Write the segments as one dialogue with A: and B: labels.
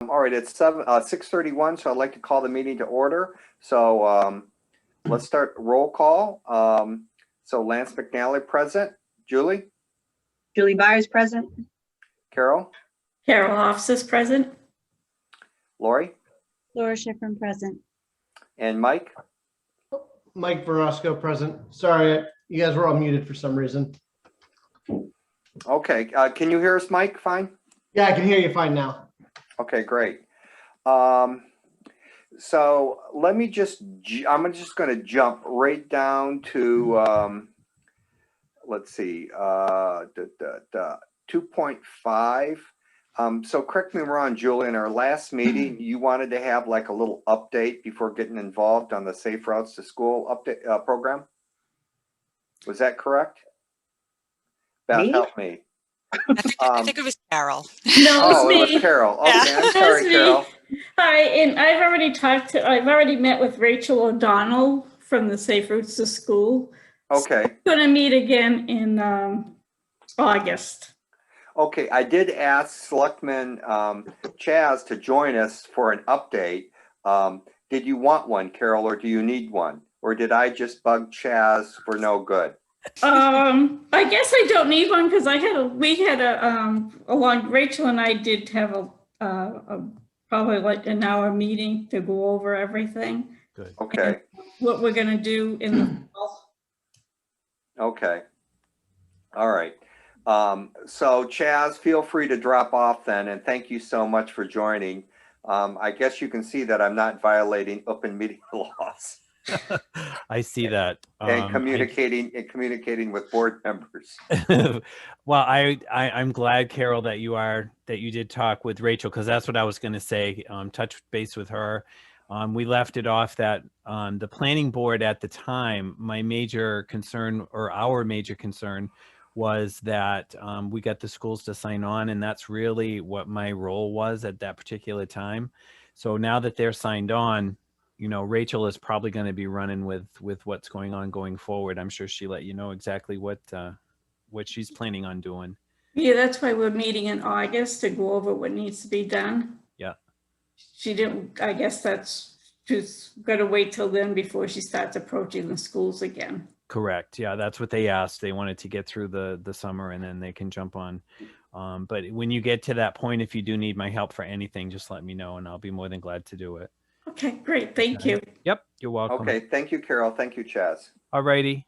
A: Um, all right, it's seven, uh, six thirty-one, so I'd like to call the meeting to order. So, um, let's start roll call. Um, so Lance McNally present, Julie,
B: Julie Byers present.
A: Carol,
C: Carol Hoffs is present.
A: Lori,
B: Laura Schiffern present.
A: and Mike.
D: Mike Verosco present. Sorry, you guys were all muted for some reason.
A: Okay, uh, can you hear us, Mike? Fine?
D: Yeah, I can hear you fine now.
A: Okay, great. Um, so let me just, ju- I'm just gonna jump right down to, um, let's see, uh, da, da, da, two point five. Um, so correct me if I'm wrong, Julie, in our last meeting, you wanted to have like a little update before getting involved on the Safe Routes to School update, uh, program? Was that correct? Beth,
B: Me?
A: help me.
E: I think, I
A: Um,
E: think it was Carol.
C: No,
A: Oh, it
C: it's
A: was
C: me.
A: Carol. Okay, I'm
C: That's
A: sorry,
C: me.
A: Carol.
C: Hi, and I've already talked to, I've already met with Rachel O'Donnell from the Safe Routes to School.
A: Okay.
C: Gonna meet again in um, August.
A: Okay, I did ask Selectman um, Chaz to join us for an update. Um, Did you want one, Carol, or do you need one? Or did I just bug Chaz for no good?
C: Um, I guess I don't need one because I had a, we had a, um, along, Rachel and I did have a, uh, a- probably like an hour meeting to go over everything,
A: Okay,
C: what we're gonna do in the fall.
A: okay. All right. Um, So Chaz, feel free to drop off then, and thank you so much for joining. Um, I guess you can see that I'm not violating open meeting laws
F: I see that.
A: and
F: Um,
A: communicating, and communicating with board members.
F: I- well, I, I I'm glad, Carol, that you are that you did talk with Rachel because that's what I was going to say. Um, touch base with her. Um, we left it off that um, the planning board at the time, my major concern or our major concern was that um, we got the schools to sign on, and that's really what my role was at that particular time. So now that they're signed on, you know, Rachel is probably going to be running with with what's going on going forward. I'm sure she let you know exactly what uh, what she's planning on doing.
C: Yeah, that's why we're meeting in August to go over what needs to be done.
F: Yeah.
C: She didn't, I guess that's, she's gonna wait till then before she starts approaching the schools again.
F: Correct. Yeah, that's what they asked. They wanted to get through the the summer and then they can jump on. Um, but when you get to that point, if you do need my help for anything, just let me know and I'll be more than glad to do it.
C: Okay, great, thank you.
F: Yep, you're welcome.
A: Okay, thank you, Carol. Thank you, Chaz.
F: All righty.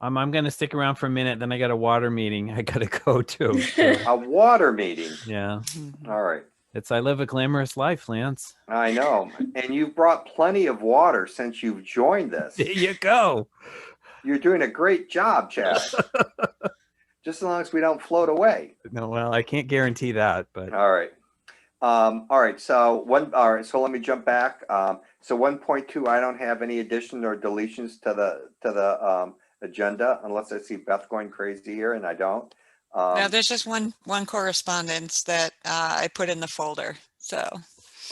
F: Um, I'm gonna stick around for a minute. Then I got a water meeting I gotta go to. so,
A: A water meeting.
F: yeah,
A: All right.
F: it's I live a glamorous life, Lance.
A: I know. And you've brought plenty of water since you've joined this.
F: There you go.
A: You're doing a great job, Chad. Just as long as we don't float away.
F: No, well, I can't guarantee that, but
A: All right. Um, all right. So one, all right. So let me jump back. Um, so 1.2, I don't have any addition or deletions to the, to the, um, agenda unless I see Beth going crazy here and I don't.
E: Now,
A: Um,
E: there's just one, one correspondence that uh, I put in the folder, so.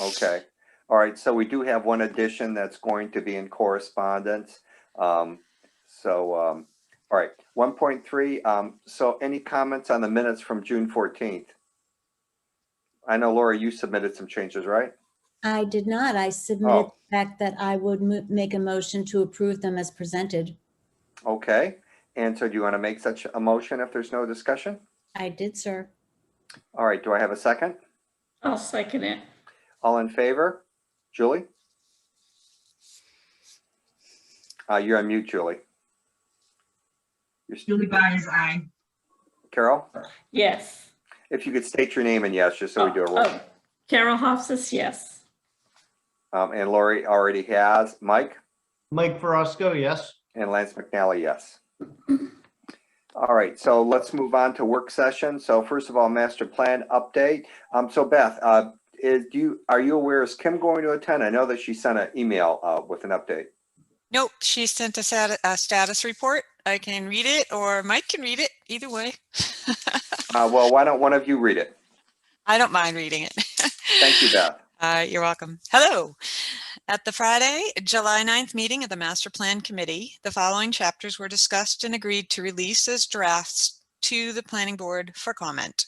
A: Okay, all right, so we do have one addition that's going to be in correspondence. Um, so, um, all right, one point three, um, so any comments on the minutes from June fourteenth? I know Laura, you submitted some changes, right?
G: I did not. I submitted
A: Oh,
G: the fact that I would mo- make a motion to approve them as presented.
A: okay, and so do you want to make such a motion if there's no discussion?
G: I did, sir.
A: All right, do I have a second?
C: I'll second it.
A: All in favor? Julie? Uh, you're on mute, Julie. You're s-
B: Julie Byers, aye.
A: Carol?
C: Yes.
A: If you could state your name and yes, just so we do a roll.
C: Oh, Carol Hoffs is yes.
A: Um, and Lori already has, Mike
D: Mike Verosco, yes.
A: and Lance McNally, yes. All right, so let's move on to work session. So first of all, master plan update. Um, so Beth, uh, is do you, are you aware, is Kim going to attend? I know that she sent an email, uh, with an update.
E: Nope, she sent us out a status report. I can read it or Mike can read it, either way.
A: Uh, well, why don't one of you read it?
E: I don't mind reading it.
A: Thank you, Beth.
E: Uh, You're welcome. Hello. At the Friday, July 9th meeting of the Master Plan Committee, the following chapters were discussed and agreed to release as drafts to the planning board for comment.